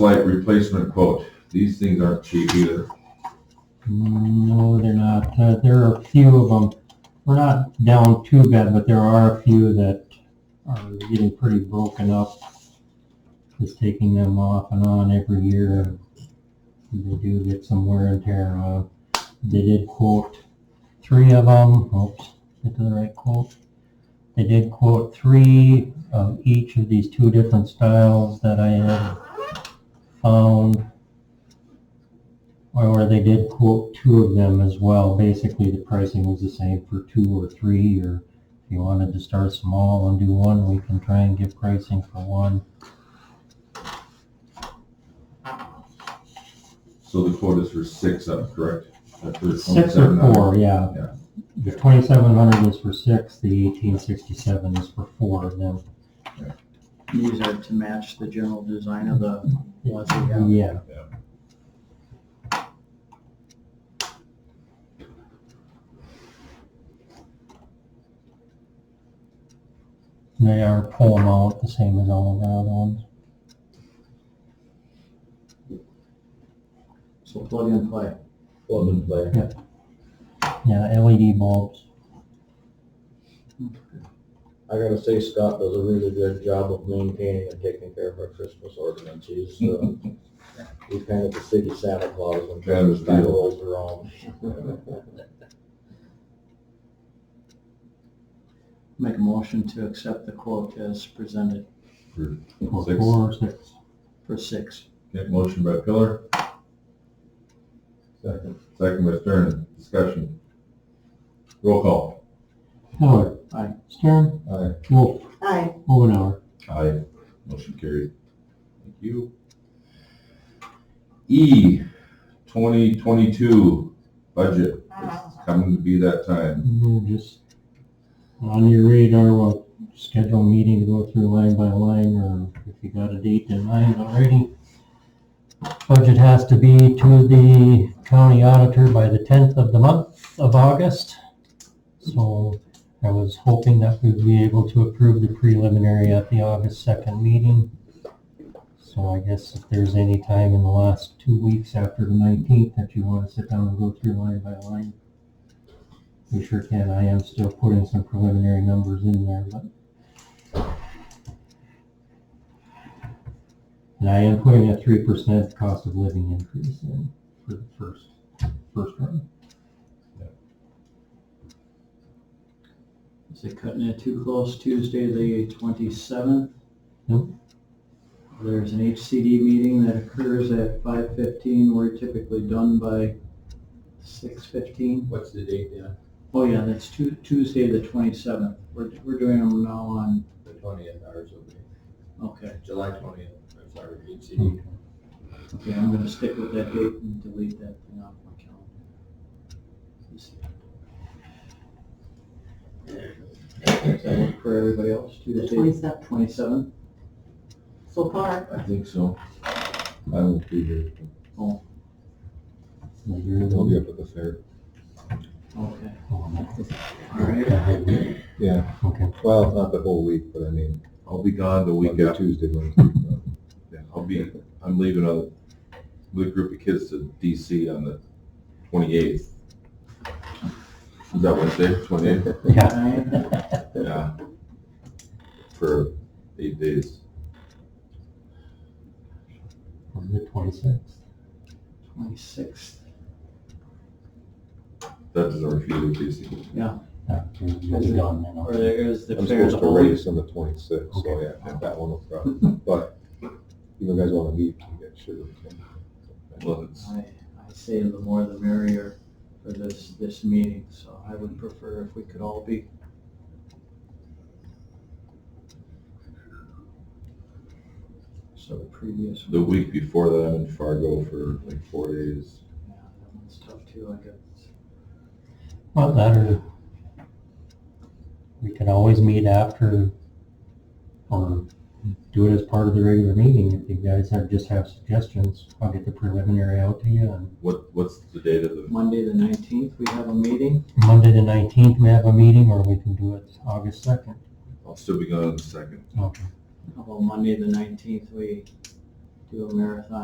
light replacement quote. These things aren't cheap either. No, they're not. Uh, there are a few of them. We're not down too bad, but there are a few that are getting pretty broken up. Just taking them off and on every year. They do get some wear and tear. Uh, they did quote three of them. Oops, get to the right quote. They did quote three of each of these two different styles that I had found. Or or they did quote two of them as well. Basically, the pricing was the same for two or three, or if you wanted to start small and do one, we can try and give pricing for one. So the quote is for six of them, correct? That's for Six or 27. four, yeah. Yeah. The twenty-seven hundred is for six, the eighteen sixty-seven is for four of them. These are to match the general design of the ones we have. Yeah. They are pull them out the same as all of our other ones. So plug and play. Plug and play. Yeah, LED bulbs. I gotta say Scott does a really good job of maintaining and taking care of our Christmas ordinance. He's, uh, he's kind of the city Santa Claus when That is Christmas time true. rolls around. Make a motion to accept the quote as presented For For six. four or six. for six. Okay, motion by Pillar. Second. Second by Stern, discussion. Roll call. Miller. Aye. Stern. Aye. Wolf. Aye. Omenauer. Aye. Motion carried. Thank you. E, twenty twenty-two budget. It's coming to be that time. We're Just on your radar, we'll schedule a meeting to go through line by line, or if you got a date in mind already. Budget has to be to the county auditor by the tenth of the month of August. So I was hoping that we'd be able to approve the preliminary at the August second meeting. So I guess if there's any time in the last two weeks after the nineteenth that you want to sit down and go through line by line, we sure can. I am still putting some preliminary numbers in there, but. And I am putting a three percent cost of living increase in for the first, first run. Is it cutting it too close Tuesday, the twenty-seventh? Nope. There's an HCD meeting that occurs at five fifteen. We're typically done by six fifteen. What's the date, Dan? Oh yeah, that's Tu- Tuesday, the twenty-seventh. We're, we're doing them now on, The twentieth, ours will be, okay. July twentieth, I'm sorry, HCD. Hmm. Okay, I'm gonna stick with that date and delete that thing off my calendar. Let's see. Does that work for everybody else? The Tuesday, twenty-seventh, twenty-seven? so far, I think so. I will be here. Like, you're the- I'll be up at the fair. Okay. oh, All right. okay. Yeah. Okay, Well, not the whole week, but I mean. I'll be gone the week Monday, after. Tuesday, Wednesday. Yeah, I'll be, I'm leaving a, with a group of kids to DC on the twenty-eighth. Is that Wednesday, twenty-eighth? yeah. Nine, Yeah. For eight days. On the twenty-sixth. Twenty-sixth. That doesn't refute it, DC. You'll be gone then, Or okay. there is the I'm fair, supposed the to whole, race on the twenty-sixth, so Okay. yeah, that one will probably, but you guys wanna meet, you guys should. Well, it's, I, I say the more the merrier for this, this meeting, so I would prefer if we could all be. So the previous. the week before that, I'm in Fargo for like four days. Yeah, that one's tough too, I guess. Well, that or we can always meet after or do it as part of the regular meeting. If you guys have, just have suggestions, I'll get the preliminary out to you. And What, what's the date of the, Monday, the nineteenth, we have a meeting. Monday the nineteenth, we have a meeting or we can do it August second. I'll still be gone on the second. Okay. How about Monday, the nineteenth, we do a marathon